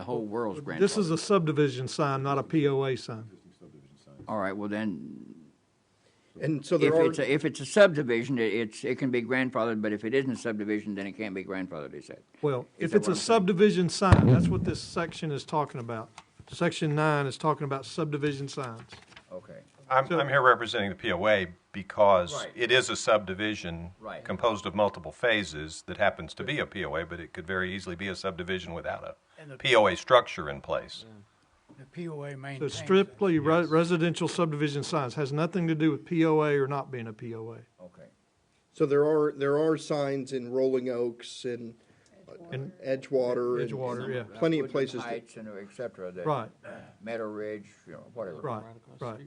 whole world's grandfathered. This is a subdivision sign, not a POA sign. All right, well then, And so if there are, it's, a- if it's a subdivision, it- it's, it can be grandfathered, but if it isn't a subdivision, then it can't be grandfathered, is that? Well, if that it's what a I'm saying? subdivision sign, that's what this section is talking about. Section nine is talking about subdivision signs. Okay. I'm, I'm here representing the POA because Right. it is a subdivision Right. composed of multiple phases that happens to be a POA, but it could very easily be a subdivision without And a the- POA structure in place. The POA So maintains. that. strictly re- residential subdivision signs has nothing to do with POA or not being a POA. Okay. so there are, there are signs in Rolling Oaks and uh, And Edgewater. and- Edgewater, yeah. Plenty of places to- Heights and et cetera, that. Right. Meadow Ridge, you know, whatever. Right, right.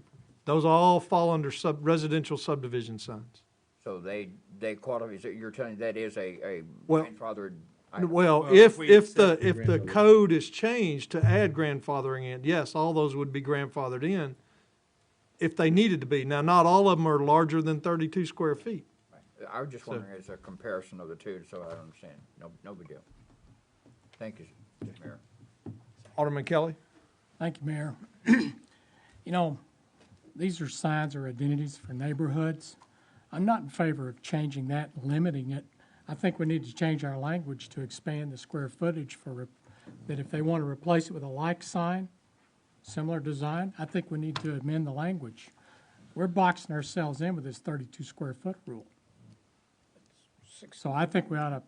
Those all fall under sub, residential subdivision signs. So they, they qualify, so you're telling, that is a, a Well- grandfathered item? Well, if, if the, if the code is changed to add grandfathering in, yes, all those would be grandfathered in if they needed to be. Now, not all of them are larger than thirty-two square feet. I was just wondering, as a comparison of the two, so I understand. No, no big deal. Thank you, Mayor. Alderman Kelly? Thank you, Mayor. You know, these are signs or identities for neighborhoods. I'm not in favor of changing that, limiting it. I think we need to change our language to expand the square footage for, re- that if they want to replace it with a like sign, similar design, I think we need to amend the language. We're boxing ourselves in with this thirty-two square foot rule. So I think we ought to,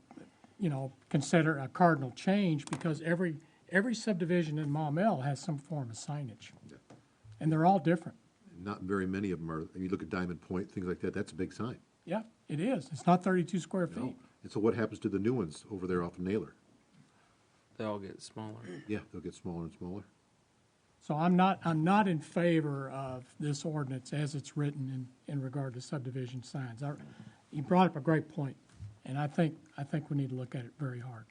you know, consider a cardinal change because every, every subdivision in Maumelle has some form of signage. And they're all different. Not very many of them are, you look at Diamond Point, things like that, that's a big sign. Yeah, it is. It's not thirty-two square you know? feet. And so what happens to the new ones over there off of Naylor? They all get smaller. Yeah, they'll get smaller and smaller. So I'm not, I'm not in favor of this ordinance as it's written in, in regard to subdivision signs. I- You brought up a great point, and I think, I think we need to look at it very hard.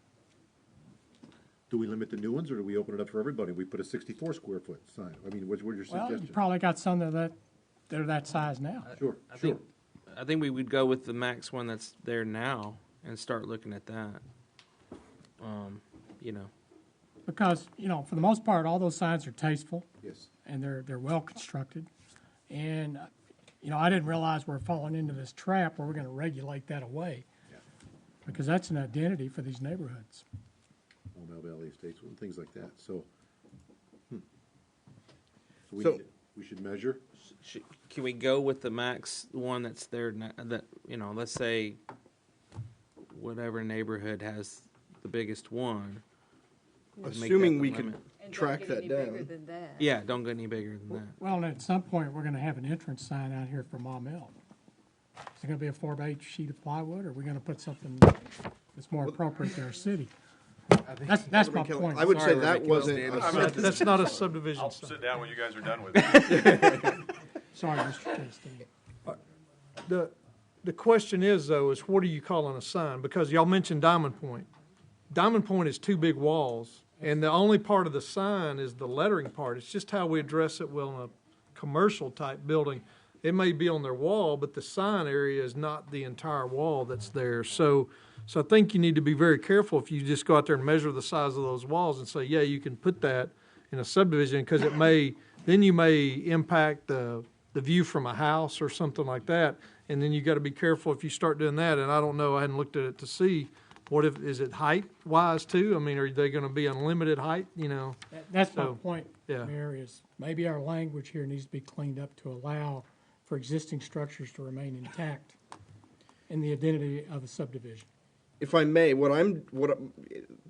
Do we limit the new ones, or do we open it up for everybody? We put a sixty-four square foot sign, I mean, what's, what's your Well, you suggestion? probably got some that, that, they're that size now. Sure, I sure. think, I think we would go with the max one that's there now and start looking at that. Um, you know, Because, you know, for the most part, all those signs are tasteful. Yes. and they're they're well constructed. And uh, you know, I didn't realize we're falling into this trap where we're going to regulate that away, because that's an identity for these neighborhoods. Mobile Valley Estates, and things like that, so. hmm. So we, So- need- we should measure, sh- can we go with the max one that's there now, that, you know, let's say whatever neighborhood has the biggest one. and make that assuming the we could limit. And don't track get that any bigger down. than that. Yeah, don't go any bigger than that. Well, and at some point, we're going to have an entrance sign out here for Mom Hill. Is it going to be a four by eight sheet of plywood, or are we going to put something that's more appropriate to our city? That's that's my Alderman Kelly, point. I would Sorry, say we're that making those wasn't, a standards. sub- That's not a subdivision I'll sign. sit down when you guys are done with it. Sorry, Mr. Chastain. The, the question is though, is what are you calling a sign? Because y'all mentioned Diamond Point. Diamond Point is two big walls, and the only part of the sign is the lettering part. It's just how we address it well in a commercial type building. It may be on their wall, but the sign area is not the entire wall that's there. So, so I think you need to be very careful if you just go out there and measure the size of those walls and say, yeah, you can put that in a subdivision, because it may, then you may impact the, the view from a house or something like that. And then you gotta be careful if you start doing that, and I don't know, I hadn't looked at it to see, what if, is it height wise too? I mean, are they gonna be unlimited height, you know? That- That's my So, point, yeah. Mayor, is maybe our language here needs to be cleaned up to allow for existing structures to remain intact in the identity of a subdivision. if I may, what I'm what I'm,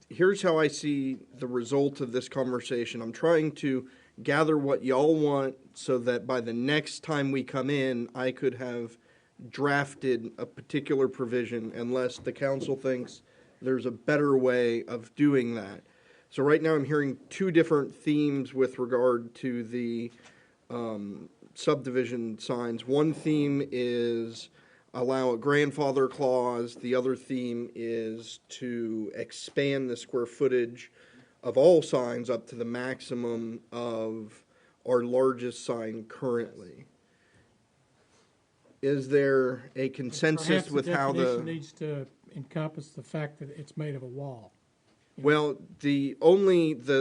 here's how I see the result of this conversation. I'm trying to gather what y'all want so that by the next time we come in, I could have drafted a particular provision unless the council thinks there's a better way of doing that. So right now I'm hearing two different themes with regard to the um, subdivision signs. One theme is allow a grandfather clause. The other theme is to expand the square footage of all signs up to the maximum of our largest sign currently. Is there a Perhaps consensus the with how definition the, Needs to encompass the fact that it's made of a wall. well, the only, the,